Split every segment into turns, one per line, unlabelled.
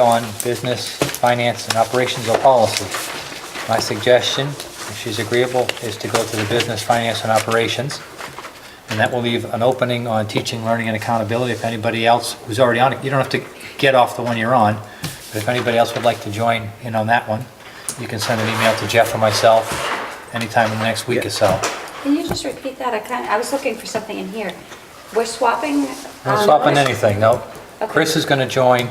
on business, finance, and operations or policy. My suggestion, if she's agreeable, is to go to the business, finance, and operations. And that will leave an opening on teaching, learning, and accountability if anybody else who's already on it, you don't have to get off the one you're on, but if anybody else would like to join in on that one, you can send an email to Jeff or myself anytime in the next week or so.
Can you just repeat that? I kind of, I was looking for something in here. We're swapping.
We're
um,
not swapping anything, no.
Okay.
Chris is going to join.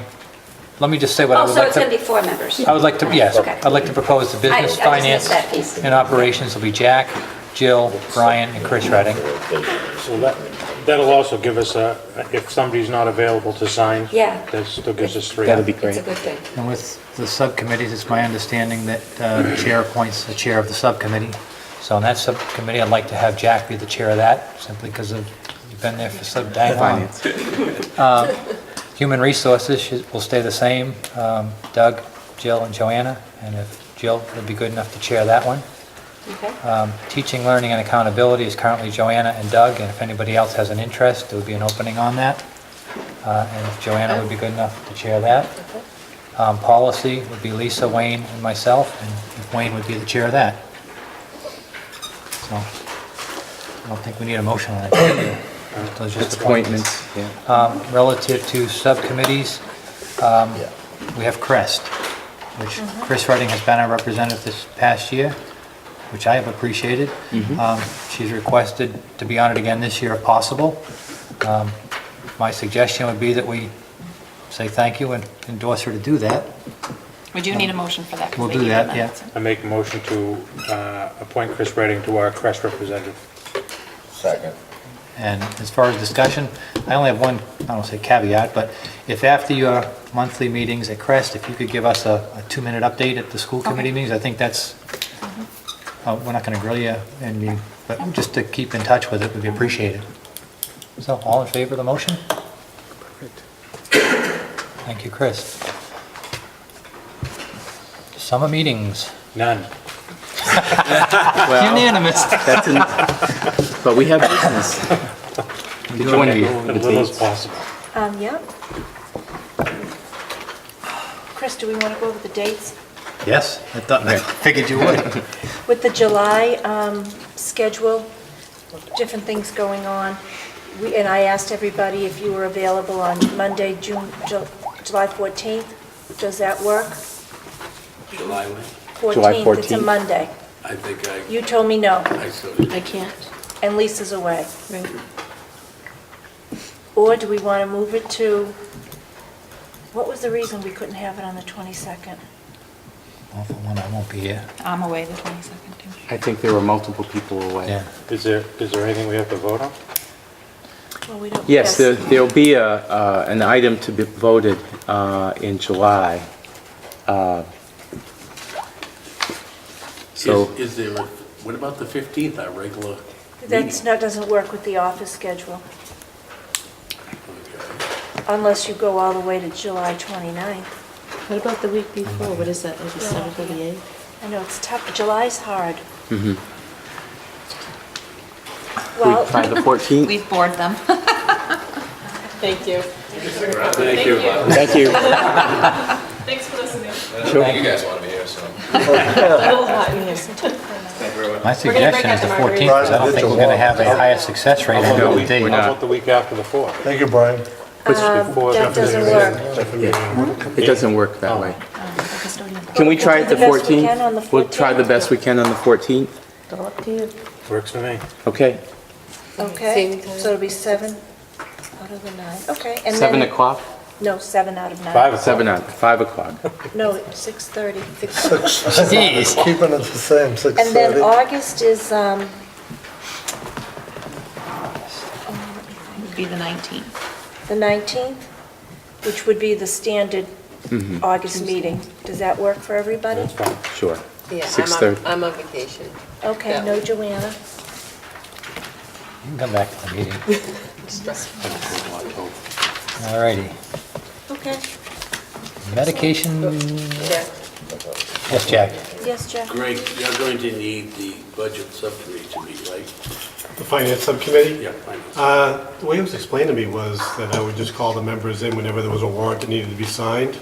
Let me just say what I
Oh,
would
so
like
it's going to
to...
be four members?
I would like to, yes,
Okay.
I'd like to propose the
I- I
business,
just
finance,
missed that piece.
and operations will be Jack, Jill, Brian, and Chris Redding.
So that, that'll also give us a, if somebody's not available to sign.
Yeah.
That still gives us three.
That'd be
It's a good thing.
And with the subcommittees, it's my understanding that uh, the chair appoints the chair of the subcommittee. So on that subcommittee, I'd like to have Jack be the chair of that, simply because of, you've been there for so dang long. Um, Human resources should- will stay the same, um, Doug, Jill, and Joanna, and if Jill would be good enough to chair that one.
Okay.
Um, Teaching, learning, and accountability is currently Joanna and Doug, and if anybody else has an interest, there would be an opening on that. Uh, And if Joanna would be good enough to chair that. Um, Policy would be Lisa, Wayne, and myself, and if Wayne would be the chair of that. So, I don't think we need a motion on that. Those are just
Appointments, yeah.
um, relative to subcommittees, um, we have CREST, which Chris Redding has been our representative this past year, which I have appreciated. Um, She's requested to be on it again this year if possible. Um, My suggestion would be that we say thank you and endorse her to do that.
We do need a motion for that.
Um,
'cause
We'll
they
do
need
that,
amendments.
I make a motion to uh, appoint Chris Redding to our Crest representative.
Second.
And as far as discussion, I only have one, I don't say caveat, but if after your monthly meetings at Crest, if you could give us a a two-minute update at the school committee meetings, I think that's, uh, we're not going to grill you, and you, but just to keep in touch with it would be appreciated. So all in favor of the motion? Thank you, Chris. Summer meetings,
None.
Well,
unanimous.
that's, an- but we have business.
We do have-
As little as possible.
Um, yep. Chris, do we want to go over the dates?
Yes, I thought, I figured you would.
With the July um, schedule, different things going on, we- and I asked everybody if you were available on Monday, June, Ju- July 14th. Does that work?
July one,
14th, it's a
14th.
Monday.
I think I,
You told me no,
I sort of,
I can't.
and Lisa's away. Or do we want to move it to, what was the reason we couldn't have it on the 22nd?
Well, for one, I won't be here,
I'm away the 22nd, too.
I think there were multiple people away.
yeah.
Is there, is there anything we have to vote on?
Well, we don't.
Yes, there- there'll be a, uh, an item to be voted uh, in July. Uh, So,
is, is there, a- what about the 15th, our regular meeting?
That's not, doesn't work with the office schedule,
Okay.
unless you go all the way to July 29th.
What about the week before? What is that, like the seventh or the eighth?
I know, it's tough, July's hard.
mhm. we try
Well,
the 14th?
We've bored them.
Thank you.
Thank you.
Thank you.
Thanks for listening.
You guys want to be here, so.
A little hot in here.
My
We're gonna break
suggestion
out
is the
the
14th,
margaritas.
because I don't think we're going to have a higher success rate on
How
the
about the
day.
week- How about the week after the 4th?
Thank you, Brian.
before
Um, that
the-
doesn't work.
It doesn't work that way. Can we
We'll
try
do
it the
the best we can on the
14th? We'll try the
14th.
best we can on the 14th?
All up to you.
Works for me.
Okay.
Okay,
Same
so
time.
it'll be seven out of the nine, okay. and
7
then-
o'clock?
No, seven out of nine.
Five o'clock.
7 o'clock, 5 o'clock.
No, 6:30.
Jeez.
Keeping it the same, six
And then
thirty.
August is, um,
It'd be the 19th.
the 19th, which would be the standard August meeting. Does that work for everybody?
That's fine.
Sure.
Yeah,
Six
I'm
thirty.
on, I'm on vacation.
Okay,
Yeah.
no Joanna.
You can come back to the meeting. All righty.
Okay,
Medication,
Yeah.
yes, Jack.
yes, Jeff?
Greg, you're going to need the budget subcommittee to meet, right?
The Finance Subcommittee?
Yeah, finance.
Uh, The way it was explained to me was that I would just call the members in whenever there was a warrant that needed to be signed,